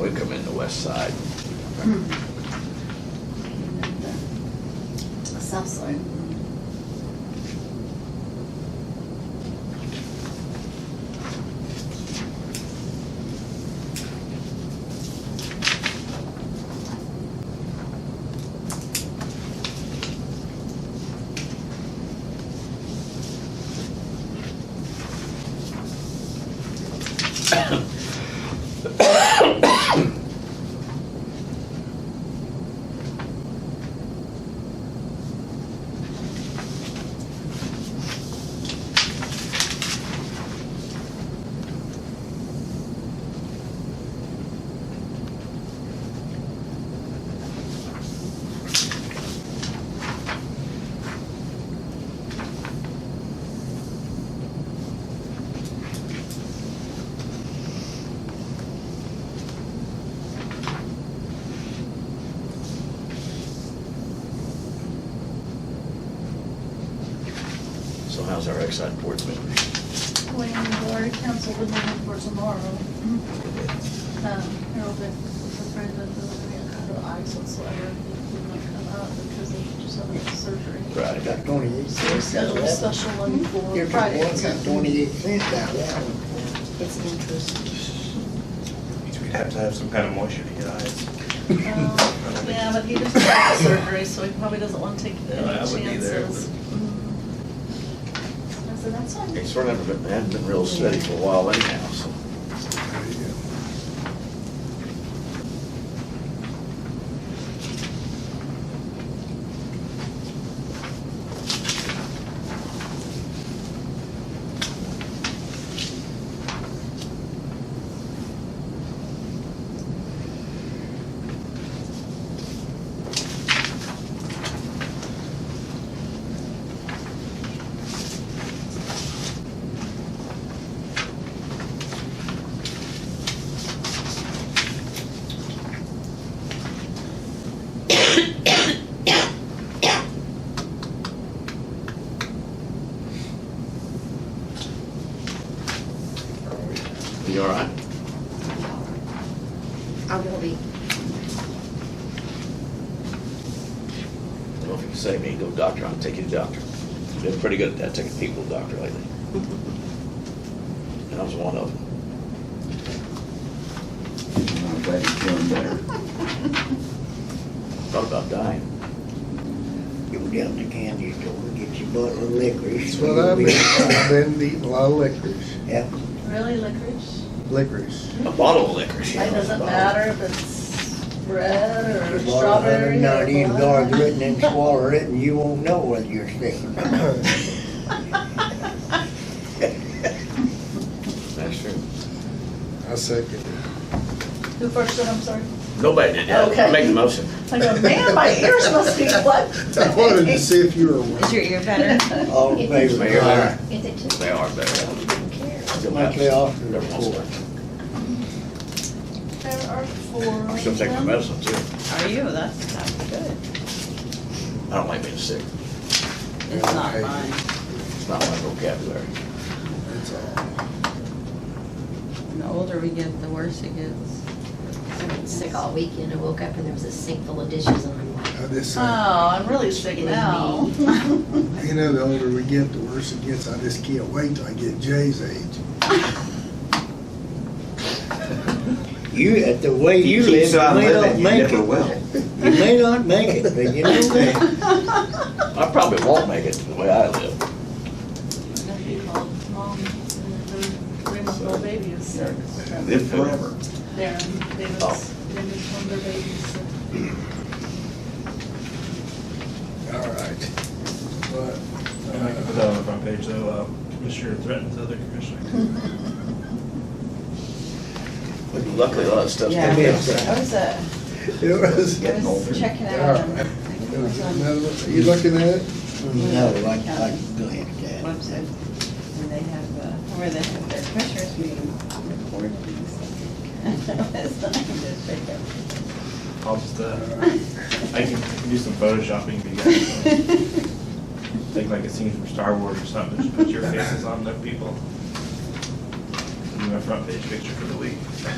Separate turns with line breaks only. We come in the west side.
South side.
So how's our Exide board members?
Planning board, council would meet for tomorrow. Um, Harold had confirmed that there would be no eyes whatsoever. He did not come out because he just had surgery.
I
Right.
got twenty-eight
So we
cents.
scheduled a special one for
Your
Friday. Um,
boy got twenty-eight cents out of that one.
It's interest.
Means we'd have to have some kind of moisture to get eyes.
Um, Yeah, but he just had surgery, so he probably doesn't want to take
Yeah,
any
I would be there,
chances. Mm-hmm. Mm. I said, that's fine.
It's sort of haven't been, hadn't been real steady for a while anyhow, so. You all right?
I will be.
Well, if you say me, go doctor, I'll take you to doctor. Been pretty good at that, taking people to doctor lately. And I was one of them.
I'm glad he's feeling better.
Thought about dying.
You go down to the candy store, get your bottle of licorice.
That's what I've been, I've been eating a lot of licorice,
Yeah,
Really licorice?
licorice.
A bottle of liquor.
It doesn't matter if it's red or
a bottle of hundred
strawberry
and
or.
ninety and guard
banana.
written and swallow it and you won't know whether you're sick or not.
That's true.
I second it.
Who first said, I'm sorry?
Nobody did that. I
Okay.
make the motion.
I go, man, my ears must be plugged.
I wanted to see if you were aware.
Is your ear better?
All in favor?
They are,
If they took.
they are better. Still
Monthly
have-
officer
Never lost
report.
one.
There are four.
I'm still taking my
of them.
medicine too.
Are you? That's, that's good.
I don't like being sick.
It's not
Okay.
mine.
It's not my vocabulary.
That's all.
And The older we get, the worse it gets.
I've been sick all weekend. I woke up and there was a sink full of dishes and I'm like,
I just,
Oh,
uh,
I'm really sick now.
you know, the older we get, the worse it gets. I just can't wait till I get Jay's age.
You, at the way you
Keep
live, you
on
may not
living, you
make
never
it.
will.
You may not make it, but you know that.
I probably won't make it the way I live.
I'm gonna be called mom, and their three-month-old baby is sick.
Live forever.
Darren, David's, David's one of their babies. sick.
All right. But,
I can put
uh,
that on the front page though, uh, commissioner threatens other commissioner.
Luckily, a lot of stuff's
Yeah,
been done.
I was, uh,
it was,
I was checking out.
All
um, I
right.
think
it
it
was
was on
another one. you looking at it?
No, I, I can go ahead and
website, where they have, uh, where they have their commissioners meeting recorded. and stuff. It's not just pick up.
I'll just, uh, I can do some photoshopping if you guys. want. Take like a scene from Star Wars or something, just put your faces on the people. Do my front page picture for the week.